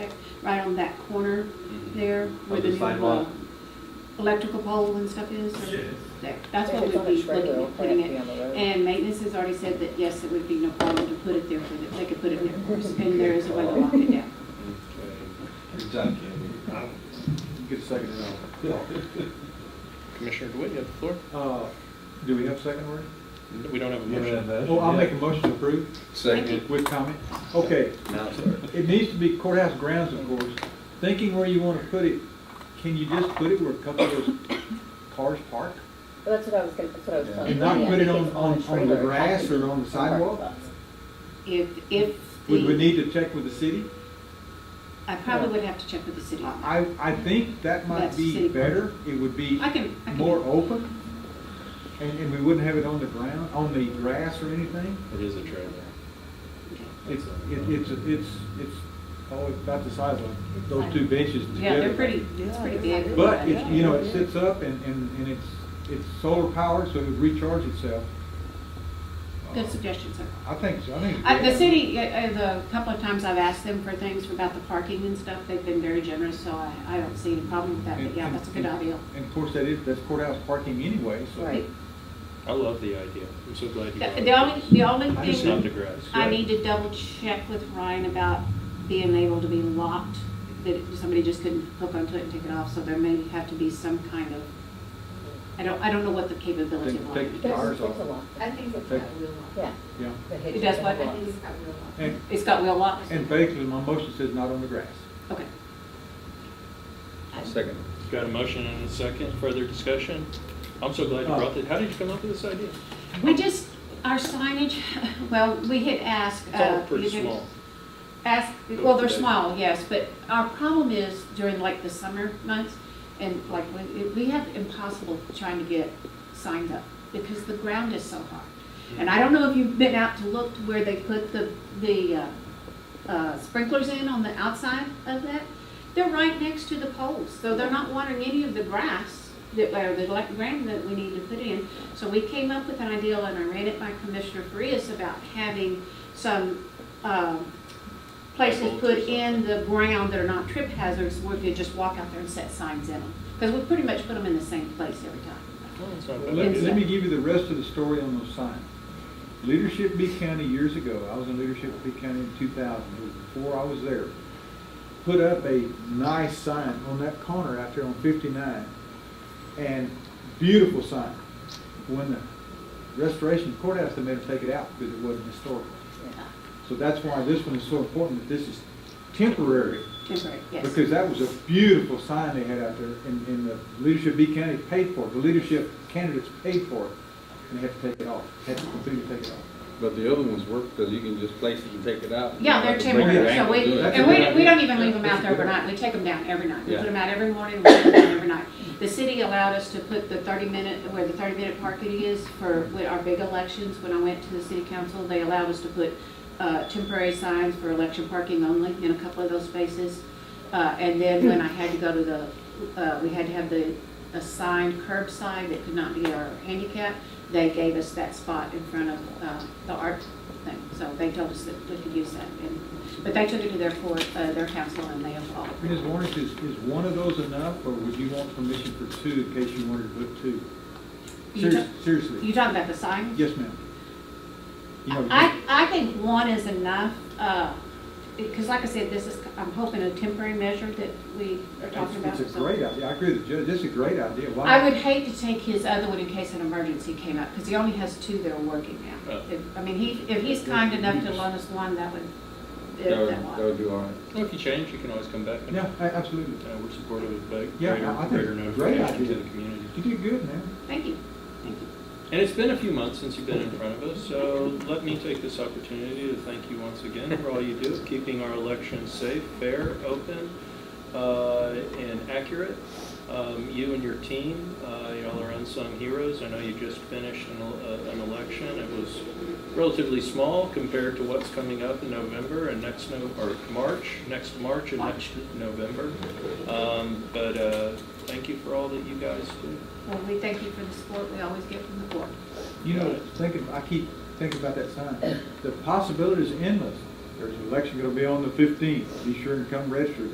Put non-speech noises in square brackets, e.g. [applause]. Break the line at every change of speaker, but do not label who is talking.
right on that corner
Mm-hmm.
Mhm.
there where
Of
the
the
new uh,
sidewalk?
electrical pole and stuff is? or-
Yes.
There, that's
If
what
it's
we
on
would
a
be
trailer,
looking
it'll
at putting
have to be
it.
on the road.
And maintenance has already said that, yes, it would be no problem to put it there for that, they could put it there for us, and there is a way to lock it down.
Good job, Candy. Get a second round.
[laughs] Commissioner DeWitt, you have the floor.
Uh, Do we have a second word?
We don't have a
Yeah,
motion.
but-
Oh, I'll make a motion to approve
Second.
with comment. Okay,
Now, sir.
it needs to be courthouse grounds, of course. Thinking where you want to put it, can you just put it where a couple of those cars park?
Well, That's what I was gonna, that's what I was telling.
And not
Tony, I
put it
think
on-
it's
on-
a
on the
trailer, it
grass
has to
or
be
on the
a parking
sidewalk?
lot.
If, if
Would we need
the,
to check with the city?
I probably would have to check with the city. I
I, I think that might
That's city.
be better. It would be
can, I can.
more open, and, and we wouldn't have it on the ground, on the grass or anything.
It is a trailer.
okay.
It's, it- it's, it's, it's, oh, it's about the size of those two benches together.
Yeah, they're pretty, it's pretty big.
But it's, you know, it sits up and, and, and it's, it's solar powered, so it would recharge itself.
Good suggestion, sir.
I think, so. I think.
Uh, The city, uh, uh, the couple of times I've asked them for things about the parking and stuff, they've been very generous, so I, I don't see any problem with that,
And-
but yeah,
and-
that's a good
and-
idea.
And of course, that is, that's courthouse parking anyway, so.
Right.
I love the idea. I'm so glad you brought
The
it
the
up.
only, the only
I
It's not the
thing,
grass.
I need to double check with Ryan about being able to be locked, that it- somebody just couldn't hook onto it and take it off, so there may have to be some kind of, I don't, I don't know what the capability
Take-
of
take-
locking it
There's-
is.
Cars
there's a
off.
lot.
I think it's got
Okay.
real lock.
Yeah.
Yeah,
the hitch
It does
is
what?
a
I
lot.
think it's got real lock.
and,
It's got wheel locks?
and basically, my motion says not on the grass.
Okay.
Second.
Got a motion and a second, further discussion? I'm so
Uh,
glad you brought it. How did you come up with this idea?
We just, our signage, [laughs] well, we had asked.
It's all
uh,
pretty
you know,
small.
Ask, well, they're small, yes, but our problem is during like the summer months, and like, we, we have impossible trying to get signs up, because the ground is so hard. And
Mm-hmm.
I don't know if you've been out to look to where they put the, the, uh, uh, sprinklers in on the outside of that. They're right next to the poles, so they're not watering any of the grass that, or the elect- ground that we need to put in. So we came up with an idea, and I ran it by Commissioner Farias about having some, um, places
Like bolts or
put in the ground that are not trip hazards, where you could just walk out there and set signs in them. Because we pretty much put them in the same place every time.
Well, it's not a
Well,
bad
Let me,
idea.
let me give you the rest of the story on those signs. Leadership B County years ago, I was in Leadership B County in two thousand, it was before I was there, put up a nice sign on that corner out there on fifty-nine, and beautiful sign. When the restoration courthouse, they made them take it out because it wasn't historical. So that's why this one is so important, that this is temporary.
Temporary, yes.
Because that was a beautiful sign they had out there, and, and the leadership of B County paid for it, the leadership candidates paid for it, and they had to take it off, had to completely take it off.
But the other ones work because you can just place it and take it out.
Yeah, they're
Bring it
temporary,
back
so
and do
we,
it.
That's
and
a good
we, we don't
idea.
even leave them out there
That's a good
overnight, we take them down every night. We put
Yeah.
them out every morning, we put them down every night. The city allowed us to put the thirty minute, where the thirty minute parking is for with our big elections, when I went to the city council, they allowed us to put, uh, temporary signs for election parking only in a couple of those spaces. Uh, and then when I had to go to the, uh, we had to have the assigned curbside that could not be our handicap, they gave us that spot in front of, uh, the art thing. So they told us that we could use that. And, but they took it to their court, uh, their council and they approved.
Ms. Warnick, is, is one of those enough, or would you want permission for two in case you wanted to put two?
You
Serious-
don't- You
Seriously,
talking about the sign?
yes, ma'am. You know,
I, I think one is enough, uh, because like I said, this is, I'm hoping a temporary measure that we are talking about.
It's it's a
so.
great idea, I agree with the judge, this is a great idea, why?
I would hate to take his other one in case an emergency came up, because he only has two that are working now.
Oh.
If, I mean, he, if he's kind enough to loan us one, that would,
That would,
that
that would
one.
do all right.
Well, if you change, you can always come back. and-
Yeah, a- absolutely.
Uh, We're supportive of the
Yeah,
greater,
I- I think
greater
great
notification to
idea.
the community.
You did good, man.
Thank you, thank you.
And it's been a few months since you've been in front of us, so let me take this opportunity to thank you once again for all you do, keeping our elections safe, fair, open, uh, and accurate. Um, You and your team, uh, y'all are unsung heroes. I know you just finished an el- uh, an election. It was relatively small compared to what's coming up in November and next, No- or March, next March and next November. Um, But uh, thank you for all that you guys do.
Well, we thank you for the support we always get from the board.
You know, thinking, I keep thinking about that sign. The possibilities endless. There's an election gonna be on the fifteenth. Be sure and come register.